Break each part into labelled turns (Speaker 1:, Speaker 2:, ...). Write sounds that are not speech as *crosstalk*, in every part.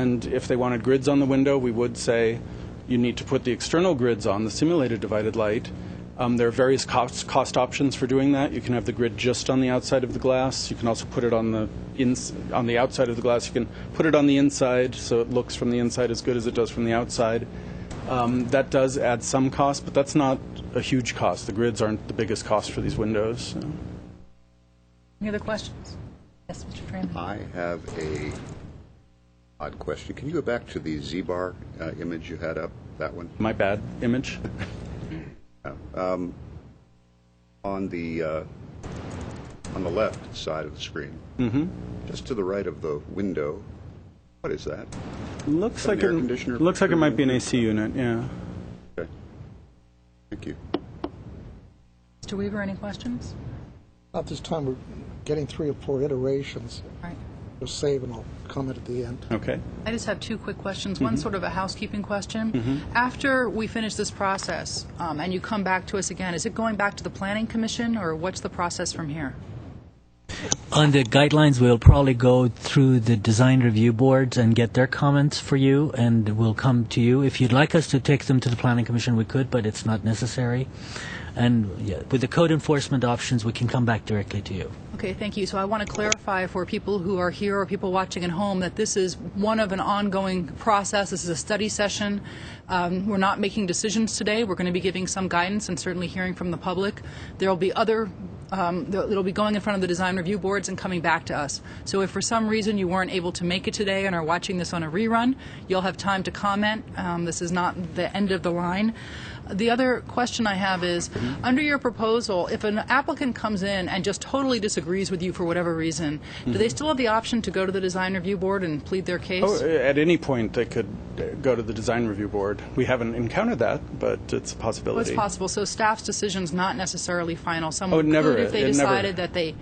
Speaker 1: And if they wanted grids on the window, we would say you need to put the external grids on, the simulated divided light. Um, there are various cost, cost options for doing that. You can have the grid just on the outside of the glass. You can also put it on the ins- on the outside of the glass. You can put it on the inside so it looks from the inside as good as it does from the outside. Um, that does add some cost, but that's not a huge cost. The grids aren't the biggest cost for these windows. so.
Speaker 2: Any other questions? Yes, Mr. Fran.
Speaker 3: I have a odd question. Can you go back to the Z-bar uh, image you had up, that one?
Speaker 1: My bad image.
Speaker 3: On the, uh, on the left side of the screen. Mm-hmm. Just to the right of the window. What is that?
Speaker 1: Looks
Speaker 3: Got an
Speaker 1: like
Speaker 3: air
Speaker 1: it,
Speaker 3: conditioner
Speaker 1: looks like it might be an
Speaker 3: program.
Speaker 1: AC unit. Yeah.
Speaker 3: Okay. Thank you.
Speaker 2: Mr. Weaver, any questions?
Speaker 4: Not this time, we're getting three or four iterations.
Speaker 2: All right.
Speaker 4: We'll save and I'll comment at the end.
Speaker 1: Okay.
Speaker 2: I just have two quick questions. One sort of a housekeeping question. After we finish this process um, and you come back to us again, is it going back to the Planning Commission or what's the process from here?
Speaker 5: On the guidelines, we'll probably go through the design review boards and get their comments for you, and we'll come to you. If you'd like us to take them to the Planning Commission, we could, but it's not necessary. And yeah, with the code enforcement options, we can come back directly to you.
Speaker 2: Okay, thank you. So I want to clarify for people who are here or people watching at home that this is one of an ongoing process. This is a study session. Um, we're not making decisions today. We're going to be giving some guidance and certainly hearing from the public. There will be other. Um, th- it'll be going in front of the design review boards and coming back to us. So, if for some reason you weren't able to make it today and are watching this on a rerun, you'll have time to comment. Um, this is not the end of the line. The other question I have is
Speaker 1: Mm-hmm.
Speaker 2: under your proposal, if an applicant comes in and just totally disagrees with you for whatever reason, do they still have the option to go to the design review board and plead their case?
Speaker 1: Mm-hmm. Oh, at any point, they could uh, go to the design review board. We haven't encountered that, but it's a
Speaker 2: Well, it's
Speaker 1: possibility.
Speaker 2: possible. So staff's decision's not necessarily final. Someone
Speaker 1: Oh, never.
Speaker 2: could, if they
Speaker 1: It never-
Speaker 2: decided that they,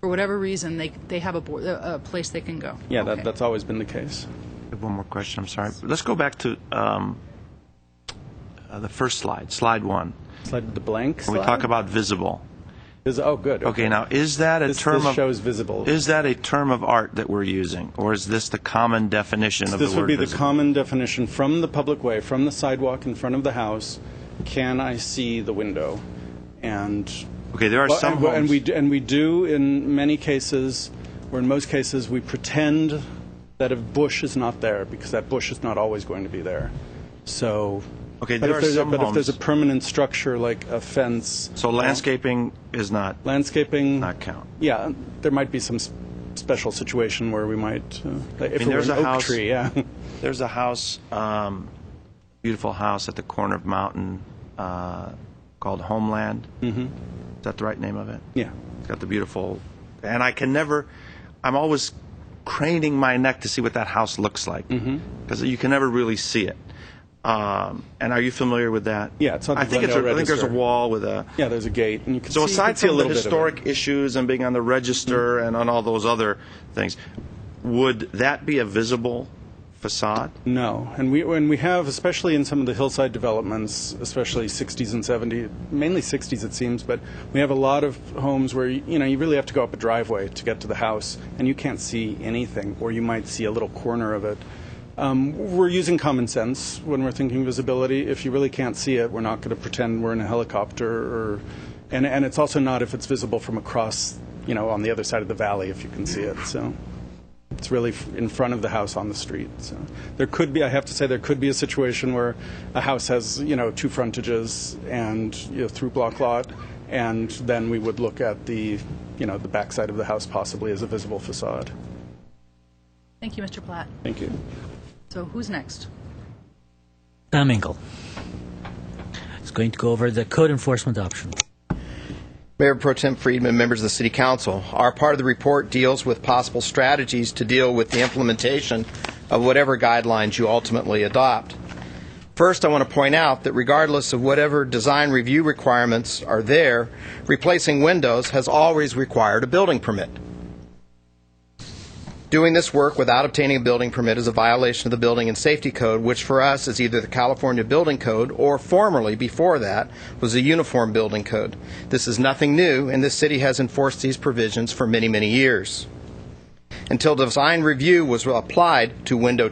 Speaker 2: for whatever reason, they they have a, board, a, a place they can go.
Speaker 1: yeah,
Speaker 2: Okay.
Speaker 1: that, that's always been the case.
Speaker 6: I have One more question, I'm sorry. Let's go back to um, uh, the first slide, slide one.
Speaker 1: Slide the blank
Speaker 6: When
Speaker 1: slide.
Speaker 6: we talk about visible.
Speaker 1: Is- oh, good.
Speaker 6: Okay, now, is that a
Speaker 1: This-
Speaker 6: term of...
Speaker 1: this shows visible.
Speaker 6: Is that a term of art that we're using, or is this the common definition of the word
Speaker 1: This would be the
Speaker 6: visible?
Speaker 1: common definition from the public way, from the sidewalk in front of the house. Can I see the window? And
Speaker 6: Okay, there are
Speaker 1: Well,
Speaker 6: some
Speaker 1: and, and
Speaker 6: homes-
Speaker 1: we d- and we do in many cases, or in most cases, we pretend that a bush is not there because that bush is not always going to be there. So,
Speaker 6: Okay,
Speaker 1: but
Speaker 6: there
Speaker 1: if
Speaker 6: are
Speaker 1: there's a,
Speaker 6: some
Speaker 1: but if there's a
Speaker 6: homes-
Speaker 1: permanent structure like a fence,
Speaker 6: So landscaping is not,
Speaker 1: landscaping,
Speaker 6: not count.
Speaker 1: yeah, there might be some s- special situation where we might, uh, like if
Speaker 6: mean,
Speaker 1: it were
Speaker 6: there's
Speaker 1: an
Speaker 6: a
Speaker 1: oak
Speaker 6: house-
Speaker 1: tree, yeah. *laughs*
Speaker 6: There's a house, um, beautiful house at the corner of Mountain uh, called Homeland. Mm-hmm. Is that the right name of it?
Speaker 1: Yeah.
Speaker 6: It's got the beautiful, and I can never. I'm always craning my neck to see what that house looks like because
Speaker 1: Mm-hmm.
Speaker 6: you can never really see it. Um, and are you familiar with that?
Speaker 1: Yeah, it's on the
Speaker 6: I think it's. A,
Speaker 1: Glendale
Speaker 6: I think there's a
Speaker 1: Register.
Speaker 6: wall with a.
Speaker 1: Yeah, there's a gate, and you can see,
Speaker 6: So
Speaker 1: you can
Speaker 6: aside
Speaker 1: see a
Speaker 6: from the
Speaker 1: little bit of it. Mm-hmm.
Speaker 6: historic issues and being on the register and on all those other things, would that be a visible facade?
Speaker 1: No, and we and we have, especially in some of the hillside developments, especially 60s and 70s, mainly 60s it seems, but we have a lot of homes where you know you really have to go up a driveway to get to the house, and you can't see anything, or you might see a little corner of it. Um, we're using common sense when we're thinking visibility. If you really can't see it, we're not going to pretend we're in a helicopter, or and and it's also not if it's visible from across, you know, on the other side of the valley if you can see it. So. It's really f- in front of the house on the street. So there could be, I have to say, there could be a situation where a house has, you know, two frontages and you know, through block lot, and then we would look at the, you know, the backside of the house possibly as a visible facade.
Speaker 2: Thank you, Mr. Platt.
Speaker 1: Thank you.
Speaker 2: So who's next?
Speaker 5: Sam Engel is going to go over the code enforcement options.
Speaker 7: Mayor Pro Tem Friedman, members of the City Council, our part of the report deals with possible strategies to deal with the implementation of whatever guidelines you ultimately adopt. First, I want to point out that regardless of whatever design review requirements are there, replacing windows has always required a building permit. Doing this work without obtaining a building permit is a violation of the Building and Safety Code, which for us is either the California Building Code or formerly, before that, was the Uniform Building Code. This is nothing new, and this city has enforced these provisions for many, many years. Until design review was applied to window